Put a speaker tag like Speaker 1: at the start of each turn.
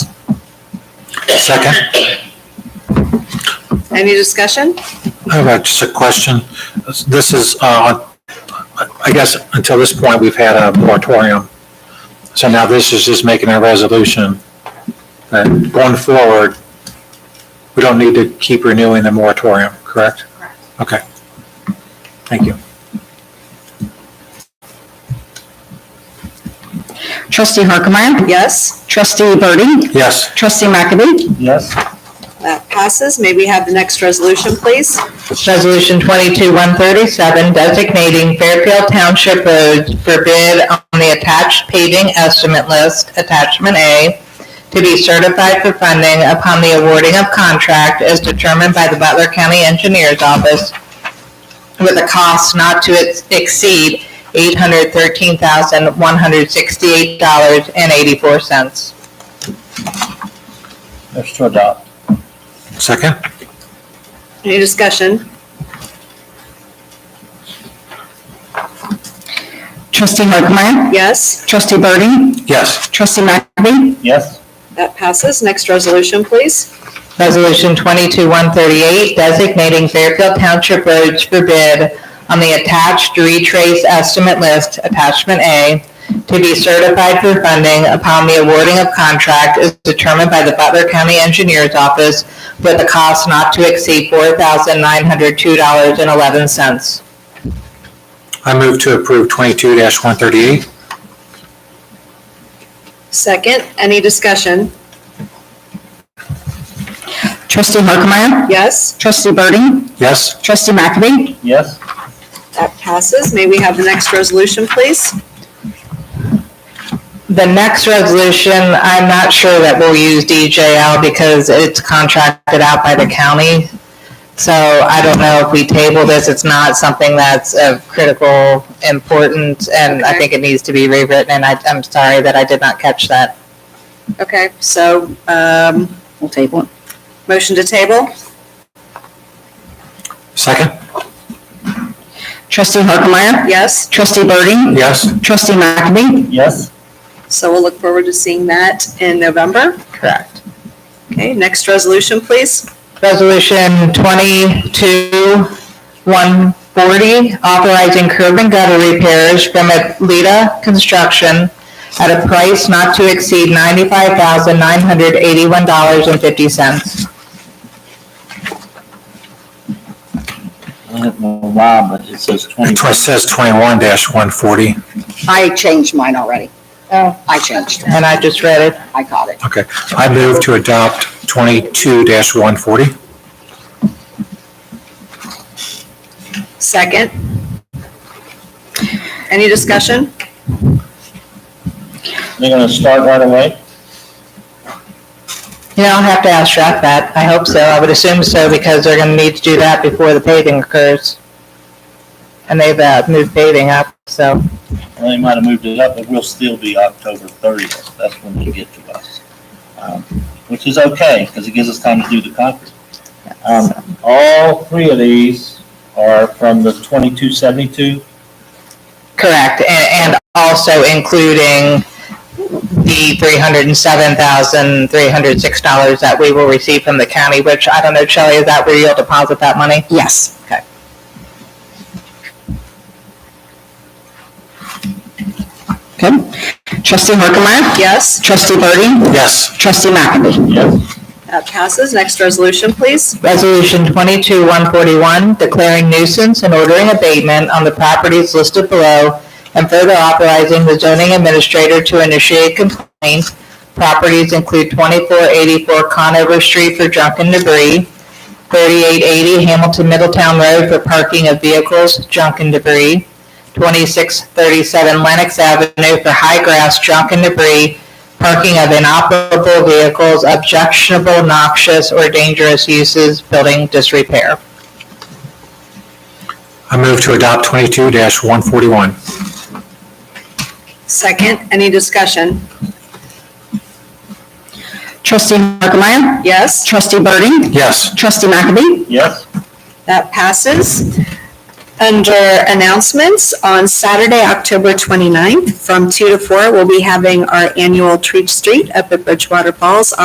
Speaker 1: Second,
Speaker 2: Any discussion?
Speaker 1: I have just a question. This is, uh, I guess until this point, we've had a moratorium. So now this is just making a resolution that going forward, we don't need to keep renewing the moratorium, correct?
Speaker 2: Correct.
Speaker 1: Okay. Thank you.
Speaker 3: Trustee Harkemaier.
Speaker 2: Yes,
Speaker 3: Trustee Birdie.
Speaker 1: Yes.
Speaker 3: Trustee McAbey.
Speaker 1: Yes.
Speaker 2: that passes. May we have the next resolution, please?
Speaker 4: Resolution 22-137, designating Fairfield Township roads for bid on the attached paving estimate list, Attachment A, to be certified for funding upon the awarding of contract as determined by the Butler County Engineers Office with a cost not to ex- exceed $813,168.84.
Speaker 5: Move to adopt.
Speaker 1: Second?
Speaker 2: Any discussion?
Speaker 3: Trustee Harkemaier.
Speaker 2: Yes,
Speaker 3: Trustee Birdie.
Speaker 1: Yes.
Speaker 3: Trustee McAbey.
Speaker 5: Yes.
Speaker 2: that passes. Next resolution, please.
Speaker 4: Resolution 22-138, designating Fairfield Township roads for bid on the attached retrace estimate list, attachment A, to be certified for funding upon the awarding of contract is determined by the Butler County Engineers Office with a cost not to exceed $4,902.11.
Speaker 1: I move to approve twenty-two one thirty-eight.
Speaker 2: Second, any discussion?
Speaker 3: Trustee Harkemaier.
Speaker 2: Yes,
Speaker 3: Trustee Birdie.
Speaker 1: Yes.
Speaker 3: Trustee McAbey.
Speaker 5: Yes.
Speaker 2: that passes. May we have the next resolution, please?
Speaker 4: The next resolution, I'm not sure that we'll use DJL because it's contracted out by the county. So I don't know if we table this, it's not something that's of critical importance, and I
Speaker 2: Okay.
Speaker 4: think it needs to be rewritten, and I, I'm sorry that I did not catch that.
Speaker 2: Okay, so, um,
Speaker 3: We'll table it.
Speaker 2: motion to table?
Speaker 1: Second?
Speaker 3: Trustee Harkemaier.
Speaker 2: Yes,
Speaker 3: Trustee Birdie.
Speaker 1: Yes.
Speaker 3: Trustee McAbey.
Speaker 5: Yes.
Speaker 2: so we'll look forward to seeing that in November.
Speaker 4: Correct.
Speaker 2: Okay, next resolution, please.
Speaker 4: Resolution twenty-two, one forty, authorizing curb and gutter repairs from Alita Construction at a price not to exceed ninety-five thousand nine hundred eighty-one dollars and fifty cents.
Speaker 5: Wow, but it says twenty.
Speaker 1: It says twenty-one one forty.
Speaker 6: I changed mine already.
Speaker 4: Oh.
Speaker 6: I changed.
Speaker 4: And I just read it.
Speaker 6: I caught it.
Speaker 1: Okay, I move to adopt twenty-two one forty.
Speaker 2: Second. Any discussion?
Speaker 5: They're gonna start right away?
Speaker 4: You know, I'll have to ask Jack that. I hope so. I would assume so because they're gonna need to do that before the paving occurs. And they've uh, moved paving up, so.
Speaker 5: Well, they might have moved it up, but we'll still be October thirtieth. That's when they get to us. Um, Which is okay, because it gives us time to do the concrete. Um, all three of these are from the twenty-two seventy-two.
Speaker 4: Correct, and, and also including the three hundred and seven thousand, three hundred and six dollars that we will receive from the county, which I don't know, Shelley, is that where you'll deposit that money?
Speaker 6: Yes.
Speaker 3: Okay. Trustee Harkemaier.
Speaker 2: Yes,
Speaker 3: Trustee Birdie.
Speaker 1: Yes.
Speaker 3: Trustee McAbey.
Speaker 5: Yes.
Speaker 2: that passes. Next resolution, please.
Speaker 4: Resolution twenty-two one forty-one, declaring nuisance and ordering abatement on the properties listed below and further authorizing the zoning administrator to initiate complaint. Properties include twenty-four eighty-four Conover Street for junk and debris, thirty-eight eighty Hamilton Middletown Road for parking of vehicles, junk and debris, twenty-six thirty-seven Lennox Avenue for high grass, junk and debris, parking of inoperable vehicles, objectionable, noxious, or dangerous uses, building disrepair.
Speaker 1: I move to adopt twenty-two one forty-one.
Speaker 2: Second, any discussion?
Speaker 3: Trustee Harkemaier.
Speaker 2: Yes,
Speaker 3: Trustee Birdie.
Speaker 1: Yes.
Speaker 3: Trustee McAbey.
Speaker 5: Yes.
Speaker 2: that passes. Under announcements, on Saturday, October 29th, from 2 to 4, we'll be having our annual Treat Street up at Bridgewater Falls